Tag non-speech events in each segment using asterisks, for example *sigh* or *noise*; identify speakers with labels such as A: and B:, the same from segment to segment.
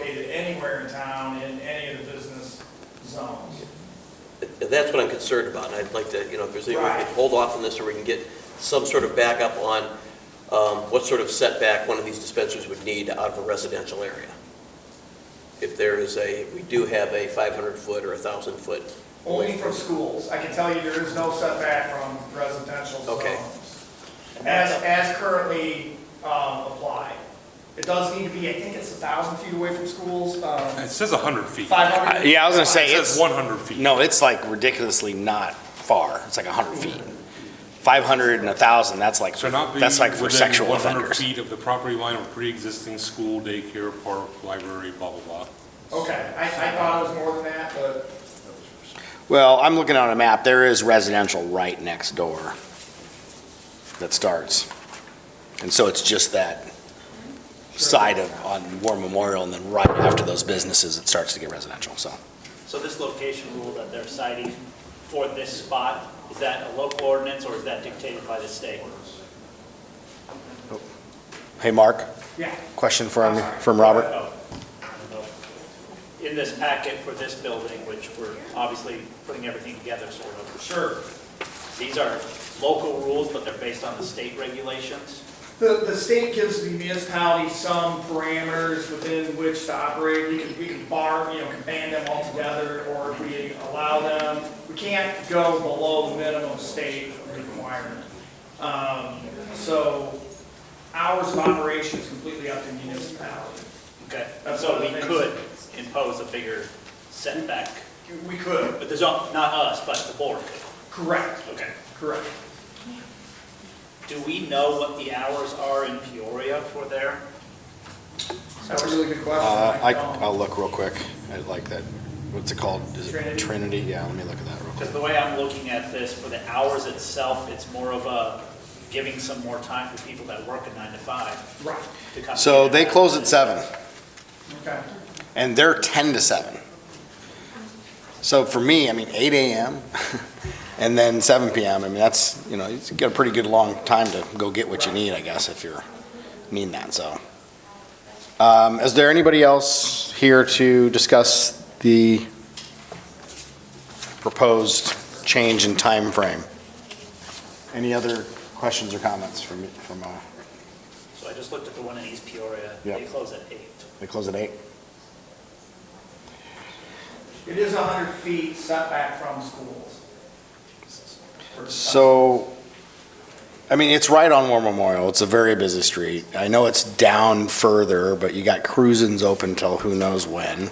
A: anywhere in town in any of the business zones.
B: That's what I'm concerned about, and I'd like to, you know, if there's any, way we
A: Right.
B: can hold off on this, or we can get some sort of backup on um, what sort of setback one of these dispensaries would need out of a residential area. If there is a, we do have a 500-foot or a 1,000-foot,
A: Only from schools. I can tell you there is no setback from residential
B: Okay.
A: zones. As, as currently um, applied. It does need to be, I think it's a thousand feet away from schools, um,
C: It says 100 feet.
A: five
D: Uh,
A: hundred.
D: Yeah, I was gonna say,
C: It says
D: it's,
C: 100 feet.
D: no, it's like ridiculously not far. It's like 100 feet. 500 and 1,000, that's like,
C: So not be
D: that's like for
C: within
D: sexual
C: 100
D: offenders.
C: feet of the property line of pre-existing school, daycare, park, library, blah, blah, blah.
A: Okay, I, I thought it was more than that, but
D: Well, I'm looking on a map, there is residential right next door that starts. And so it's just that side of, on War Memorial, and then right after those businesses, it starts to get residential, so.
E: So this location rule that they're citing for this spot, is that a local ordinance or is that dictated by the state?
D: Hey, Mark,
A: yeah.
D: question from, from Robert?
E: Oh. In this packet for this building, which we're obviously putting everything together sort of,
A: Sure.
E: these are local rules, but they're based on the state regulations.
A: The, the state gives the municipality some parameters within which to operate. We can, we can bar, you know, can ban them altogether, or we allow them. We can't go below the minimum state requirement. Um, so hours of operation is completely up to municipality.
E: Okay,
A: That's
E: so
A: one
E: we
A: of the things.
E: could impose a bigger setback,
A: We could.
E: but there's, not not us, but the board.
A: Correct,
E: Okay.
A: correct.
E: Do we know what the hours are in Peoria for there?
A: That's a really good question.
D: Uh, I,
A: don't.
D: I'll look real quick, I like that, what's it called? Is
A: Trinity?
D: it Trinity? Yeah, let me look at that real quick.
E: Because the way I'm looking at this, for the hours itself, it's more of a giving some more time for people that work a nine to five
A: Right,
E: to come.
D: So
E: in.
D: they close at seven,
A: okay.
D: and they're ten to seven. So for me, I mean, eight AM *laughs* and then seven PM, I mean, that's, you know, it's got a pretty good long time to go get what you need, I guess, if you're needing that, so. Um, is there anybody else here to discuss the proposed change in time frame? Any other questions or comments from, from, uh,
E: So I just looked at the one in East Peoria,
D: Yeah.
E: they close at eight.
D: they close at eight?
A: It is hundred feet setback from schools.
D: So, I mean, it's right on War Memorial. It's a very busy street. I know it's down further, but you got cruisins open till who knows when.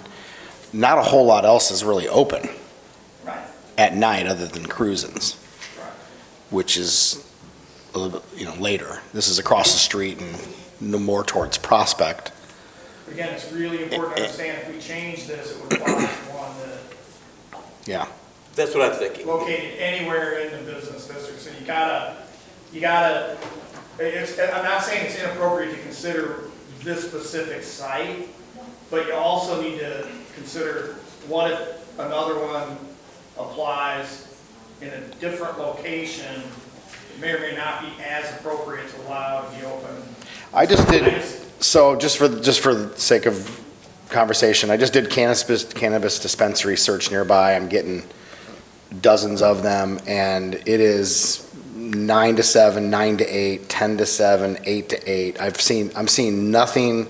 D: Not a whole lot else is really open
A: Right,
D: at night other than cruisins,
A: right.
D: which is a little bit, you know, later. This is across the street and no more towards Prospect.
A: Again, it's really important to understand if we change this, it would apply to one that
B: that's what I'm thinking.
A: located anywhere in the business district. So you gotta, you gotta, it's, I'm not saying it's inappropriate to consider this specific site, but you also need to consider what if another one applies in a different location, it may or may not be as appropriate to allow to be open.
D: I just
A: I
D: did,
A: just-
D: so just for, just for the sake of conversation, I just did cannabis, cannabis dispensary search nearby. I'm getting dozens of them and it is nine to seven, nine to eight, 10 to seven, eight to eight. I've seen, I'm seeing nothing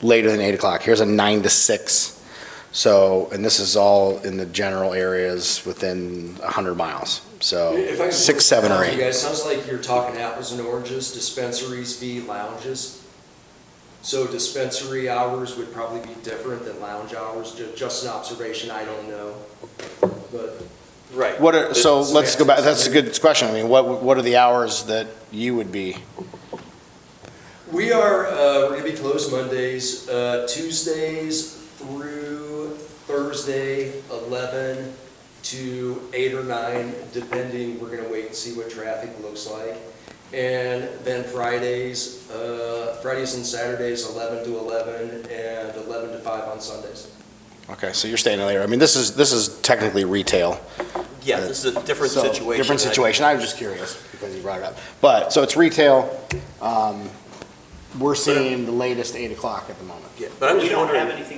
D: later than eight o'clock. Here's a nine to six. So, and this is all in the general areas within a hundred miles.
F: If I
D: So
F: could
D: six, seven or
F: comment, You
D: eight.
F: guys, sounds like you're talking apples and oranges, dispensaries v. lounges. So dispensary hours would probably be different than lounge hours, ju- just an observation, I don't know. But
B: Right.
D: What are, so
F: It's-
D: let's go back, that's a good question. I mean, what, what are the hours that you would be?
F: we are, uh, we're gonna be closed Mondays, uh, Tuesdays through Thursday, eleven to eight or nine, depending, we're gonna wait and see what traffic looks like. And then Fridays, uh, Fridays and Saturdays, eleven to eleven, and eleven to five on Sundays.
D: Okay, so you're staying later. I mean, this is, this is technically retail.
B: Yeah, this is a different
D: So,
B: situation.
D: Different
B: I-
D: situation. I was just curious because you brought it up. But, so it's retail. Um, we're seeing the latest eight o'clock at the moment.
B: yeah, But I'm
E: We
B: just
E: don't
B: wondering.
E: have anything